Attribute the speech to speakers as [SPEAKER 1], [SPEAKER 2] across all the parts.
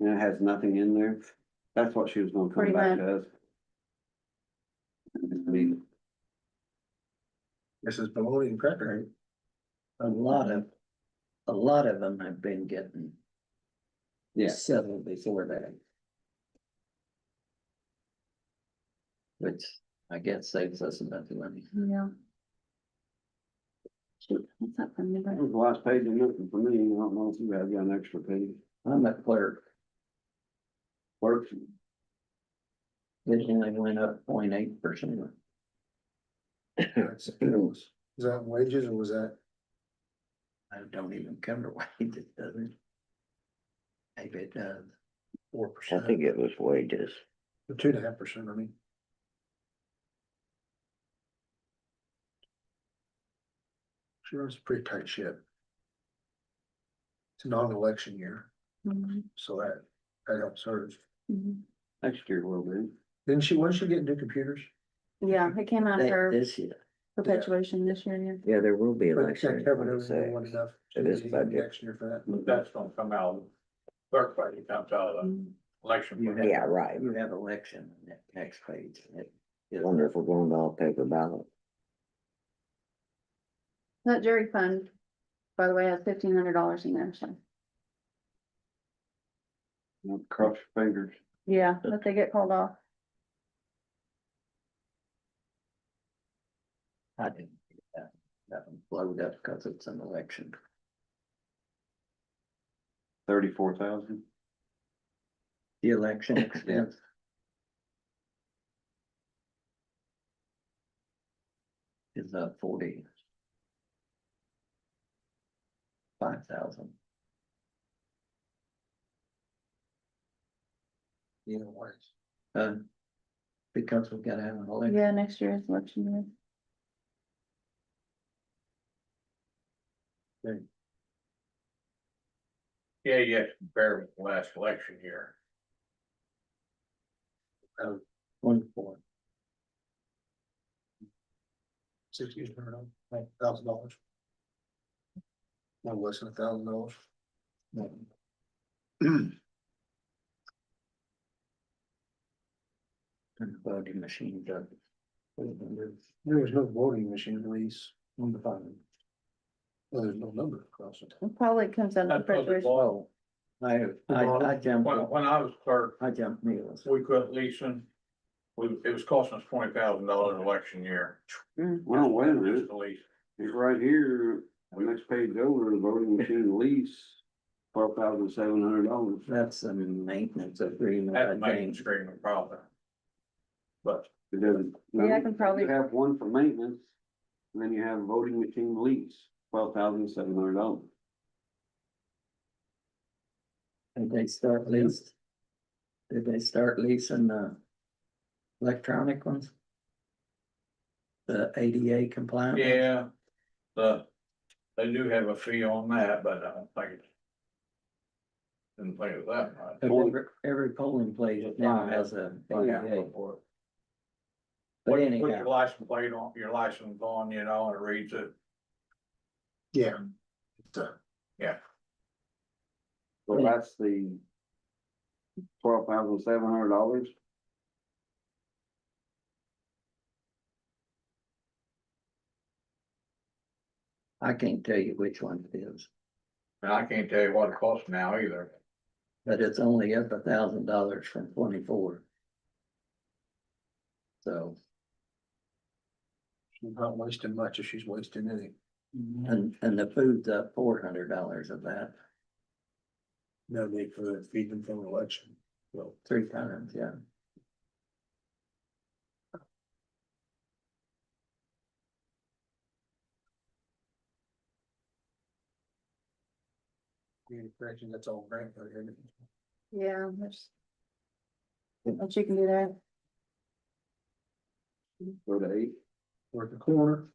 [SPEAKER 1] and it has nothing in there. That's what she was gonna come
[SPEAKER 2] Pretty
[SPEAKER 1] back to us. I mean,
[SPEAKER 3] This is baloney and cracker.
[SPEAKER 4] A lot of, a lot of them have been getting
[SPEAKER 1] yeah,
[SPEAKER 4] settled before that. Which I guess saves us enough money.
[SPEAKER 2] Yeah. Shoot, what's that from
[SPEAKER 1] that
[SPEAKER 2] number?
[SPEAKER 1] was the last page of nothing for me, I don't know if you have got an extra page.
[SPEAKER 4] I'm a clerk,
[SPEAKER 1] Works,
[SPEAKER 4] it only went up 0.8 percent.
[SPEAKER 3] Is that wages or was that?
[SPEAKER 4] I don't even come to wages, does it? Maybe it does.
[SPEAKER 3] Four
[SPEAKER 5] I
[SPEAKER 3] percent,
[SPEAKER 5] think it was wages.
[SPEAKER 3] or two and a half percent, I mean. She runs a pretty tight ship. It's a non-election year,
[SPEAKER 2] Mhm,
[SPEAKER 3] so that, that helps her.
[SPEAKER 2] mhm.
[SPEAKER 1] next year will be.
[SPEAKER 3] Didn't she, wasn't she getting new computers?
[SPEAKER 2] Yeah, it came out
[SPEAKER 5] That-
[SPEAKER 2] for
[SPEAKER 5] This year,
[SPEAKER 2] perpetuation this year, yeah.
[SPEAKER 5] yeah, there will be
[SPEAKER 3] But it's
[SPEAKER 5] election.
[SPEAKER 3] not
[SPEAKER 5] in
[SPEAKER 3] covered over
[SPEAKER 5] 26.
[SPEAKER 3] everyone enough.
[SPEAKER 5] It is
[SPEAKER 3] to
[SPEAKER 5] budget.
[SPEAKER 3] Next year for that.
[SPEAKER 6] That's gonna come out, of clerk budget comes out
[SPEAKER 3] Uh.
[SPEAKER 6] of
[SPEAKER 2] Mhm.
[SPEAKER 6] election.
[SPEAKER 4] You
[SPEAKER 6] budget.
[SPEAKER 4] have-
[SPEAKER 5] Yeah, right.
[SPEAKER 4] You have election on that next page. It-
[SPEAKER 5] I Wonder if we're going to all paper ballot.
[SPEAKER 2] That jury fund, by the way, has fifteen hundred dollars in there, so,
[SPEAKER 1] Now, Cross your fingers.
[SPEAKER 2] yeah, but they get called off.
[SPEAKER 4] I didn't. get That That one blowed up because it's an election.
[SPEAKER 1] Thirty-four thousand?
[SPEAKER 4] The election expense. Is up forty. Five thousand.
[SPEAKER 3] Either way.
[SPEAKER 4] Uh, because we've got to have an election.
[SPEAKER 2] Yeah, next year is election year.
[SPEAKER 6] Yeah, you have to compare with the last election year.
[SPEAKER 4] One four.
[SPEAKER 3] six years, I don't know, thousand dollars. No, less than a thousand dollars.
[SPEAKER 4] And the voting machine does. On
[SPEAKER 3] There was no voting machine release,
[SPEAKER 4] the phone.
[SPEAKER 3] well, there's no number across it.
[SPEAKER 2] It Probably comes out of
[SPEAKER 6] That's what it
[SPEAKER 2] perpetuation.
[SPEAKER 6] was.
[SPEAKER 4] Oh, I, I, I jumped,
[SPEAKER 6] When, when I was clerk,
[SPEAKER 4] I jumped meals.
[SPEAKER 6] we quit leasing. We, it was costing us twenty thousand dollars election year.
[SPEAKER 1] Well, wait a
[SPEAKER 6] Just
[SPEAKER 1] minute,
[SPEAKER 6] to lease.
[SPEAKER 1] it's right here, the next page over, the voting machine lease, twelve thousand seven hundred dollars.
[SPEAKER 4] That's a maintenance agreement,
[SPEAKER 6] That
[SPEAKER 4] I
[SPEAKER 6] main
[SPEAKER 4] think.
[SPEAKER 6] stream of problem. But
[SPEAKER 1] It doesn't.
[SPEAKER 2] Yeah, I can probably-
[SPEAKER 1] You have one for maintenance, and then you have voting machine lease, twelve thousand seven hundred dollars.
[SPEAKER 4] Did they start lease? Did they start leasing the electronic ones? The ADA compliant? ones?
[SPEAKER 6] yeah, the, they do have a fee on that, but I don't think it's. Didn't think it was that much.
[SPEAKER 4] But Every every polling place now has a ADA, but
[SPEAKER 6] Put put your
[SPEAKER 4] anyhow,
[SPEAKER 6] license plate on, your license on, you know, and it reads it.
[SPEAKER 3] Yeah. It's uh, a
[SPEAKER 1] So
[SPEAKER 4] Yeah.
[SPEAKER 1] that's the twelve thousand seven hundred dollars.
[SPEAKER 4] I can't tell you which one it is,
[SPEAKER 6] And I can't tell you what it costs now either.
[SPEAKER 4] but it's only up a thousand dollars from twenty-four. So,
[SPEAKER 3] She's not wasting much if she's wasting any.
[SPEAKER 4] and, and the food's up four hundred dollars of that,
[SPEAKER 3] No need for the feeding from election. Well,
[SPEAKER 4] three times, yeah.
[SPEAKER 3] community correction, that's all grant. money, isn't it?
[SPEAKER 2] Yeah, there's. But you can do that.
[SPEAKER 1] Go to eight,
[SPEAKER 3] We're at the corner.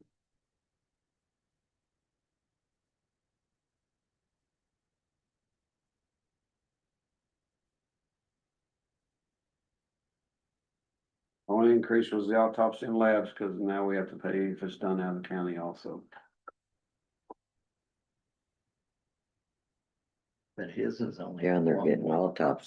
[SPEAKER 1] only increase was the autopsy and labs, cause now we have to pay if it's done out of county also.
[SPEAKER 4] But his is only.
[SPEAKER 5] Down there
[SPEAKER 4] one
[SPEAKER 5] getting
[SPEAKER 4] more.
[SPEAKER 5] all tops